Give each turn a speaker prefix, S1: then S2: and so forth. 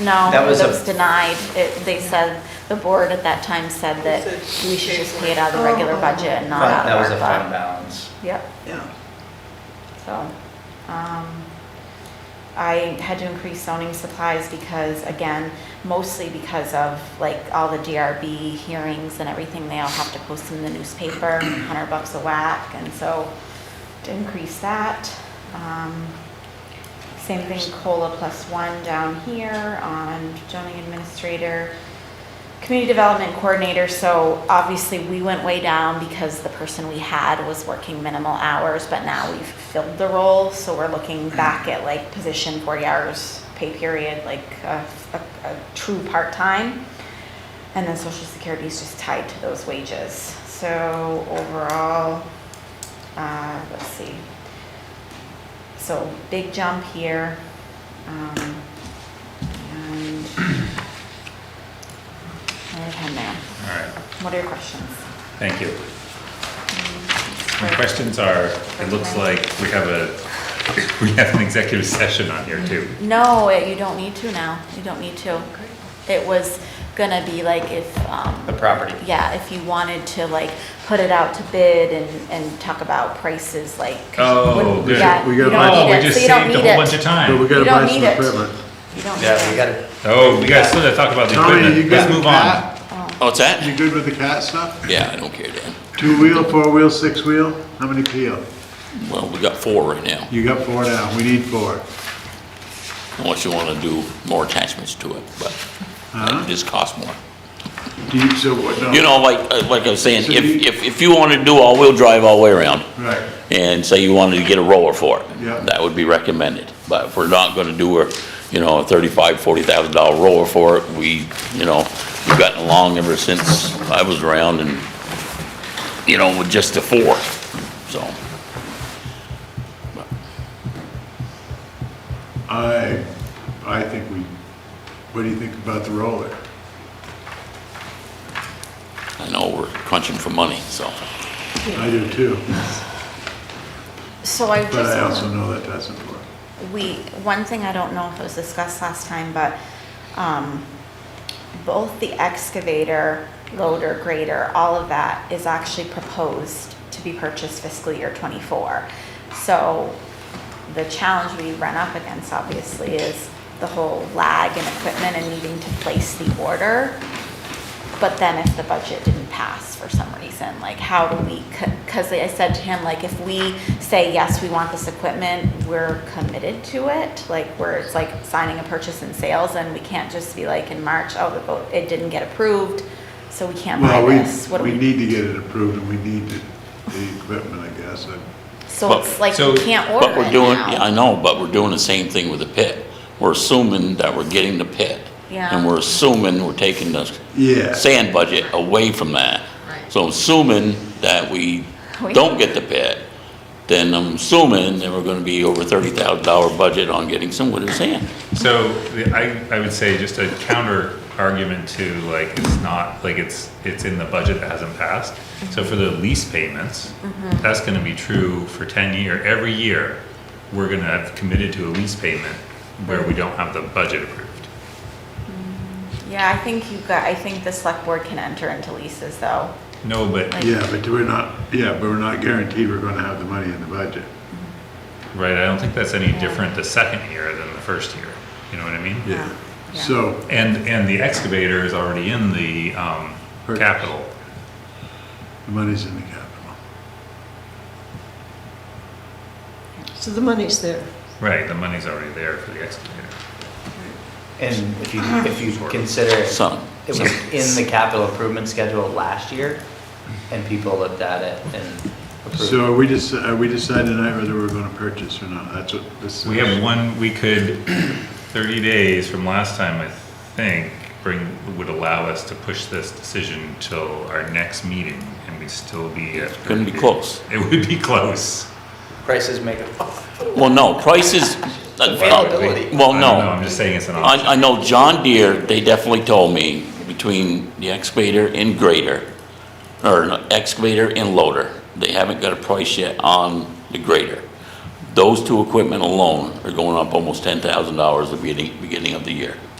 S1: No,
S2: That
S1: it
S2: was a-
S1: was denied. It, they said, the board at that time said that we should just pay it out of the regular budget and not
S2: Fund-
S1: out of
S2: That
S1: our
S2: was a fund
S1: fund.
S2: balance.
S1: Yep,
S3: Yeah,
S1: so, um, I had to increase zoning supplies because, again, mostly because of like all the DRB hearings and everything, they all have to post in the newspaper, hundred bucks a whack, and so to increase that. Um, Same thing, COLA plus one down here on zoning administrator, community development coordinator. So obviously, we went way down because the person we had was working minimal hours, but now we've filled the role. So we're looking back at like position 40 hours pay period, like a, a- a true part-time. And then social security is just tied to those wages. So overall, uh, let's see. So big jump here. Um, and right hand there.
S4: All right,
S1: What are your questions?
S4: thank you. My questions are, it looks like we have a, we have an executive session on here too.
S1: No, it- you don't need to now. You don't need to. It was gonna be like if,
S2: The
S1: um,
S2: property.
S1: yeah, if you wanted to like put it out to bid and, and talk about prices, like. 'cause you
S4: Oh,
S1: wouldn't-
S4: good.
S1: yeah,
S5: We
S1: you
S5: got-
S1: don't
S4: Oh,
S1: need
S4: we
S1: it,
S4: just
S1: so you don't
S4: saved a
S1: need
S4: whole
S1: it.
S4: bunch of
S5: But we
S4: time.
S1: You
S5: gotta
S1: don't
S5: buy
S1: need
S5: some
S1: it.
S5: equipment.
S1: You don't need
S2: Yeah, we
S1: it.
S2: gotta,
S4: Oh, we got, still gotta talk about the
S5: Tommy, you
S4: equipment.
S5: good
S4: Let's
S5: with
S4: move on.
S5: cat?
S6: Oh, it's that?
S5: You good with the cat stuff?
S6: Yeah, I don't care, Dan.
S5: Two-wheel, four-wheel, six-wheel? How many PO?
S6: Well, we got four right now,
S5: You got four now, we need four.
S6: unless you wanna do more attachments to it, but it just costs more.
S5: Do you, so what, no?
S6: You know, like, uh, like I was saying,
S5: So
S6: if,
S5: you-
S6: if, if you wanna do all-wheel drive all the way around,
S5: Right,
S6: and say you wanted to get a roller for it.
S5: Yeah.
S6: That would be recommended, but if we're not gonna do a, you know, a thirty-five, forty thousand dollar roller for it, we, you know, we've gotten along ever since I was around and, you know, with just the four, so.
S5: I, I think we, what do you think about the roller?
S6: I know we're crunching for money, so.
S5: I do too,
S1: So I
S5: but I
S1: just,
S5: also know that doesn't work.
S1: we, one thing I don't know if it was discussed last time, but, um, both the excavator, loader, grader, all of that is actually proposed to be purchased fiscal year twenty-four. So the challenge we run up against obviously is the whole lag in equipment and needing to place the order. But then if the budget didn't pass for some reason, like how do we, because I said to him, like, if we say, yes, we want this equipment, we're committed to it, like, where it's like signing a purchase and sales, and we can't just be like in March, oh, the vote, it didn't get approved, so we can't buy
S5: Well,
S1: this. What do
S5: we, we
S1: we,
S5: need to get it approved and we need the, the equipment, I guess. I-
S1: so it's like,
S4: So-
S1: we can't order
S6: But we're
S1: it
S6: doing,
S1: now.
S6: yeah, I know, but we're doing the same thing with the pit. We're assuming that we're getting the pit.
S1: Yeah.
S6: And we're assuming we're taking the
S5: Yeah.
S6: sand budget away from that. So assuming that we
S1: We-
S6: don't get the pit, then I'm assuming that we're gonna be over thirty thousand dollar budget on getting some winter sand.
S4: So the- I, I would say just a counter argument to like, it's not, like it's, it's in the budget that hasn't passed. So for the lease payments,
S1: Mm-hmm.
S4: that's gonna be true for ten year, every year, we're gonna have committed to a lease payment where we don't have the budget approved.
S1: Yeah, I think you got, I think the select board can enter into leases, though.
S4: No, but,
S1: Like-
S5: Yeah, but we're not, yeah, but we're not guaranteed we're gonna have the money in the budget.
S4: right, I don't think that's any different the second year than the first year, you know what I mean?
S5: Yeah.
S1: Um, Yeah.
S5: So,
S4: And, and the excavator is already in the, um,
S5: Purchase.
S4: capital.
S5: the money's in the capital.
S3: so the money's there.
S4: Right, the money's already there for the excavator.
S2: and if you,
S1: Uh-huh.
S2: if you consider, it
S6: Some,
S2: was
S6: some.
S2: in the capital improvement schedule last year, and people looked at it and approved.
S5: So are we just, are we deciding tonight whether we're gonna purchase or not? That's what this is.
S4: We have one, we could, thirty days from last time, I think, bring, would allow us to push this decision till our next meeting, and we'd still be at.
S6: Couldn't
S4: 30
S6: be
S4: days.
S6: close.
S4: It would be close.
S2: Prices make it.
S6: Well, no, prices. uh,
S2: Availability.
S6: Well,
S4: I
S6: no.
S4: don't know, I'm just saying it's an option.
S6: I, I know John Deere, they definitely told me between the excavator and grader, or no, excavator and loader, they haven't got a price yet on the grader. Those two equipment alone are going up almost ten thousand dollars at the beginning, beginning of the year.
S3: Ah.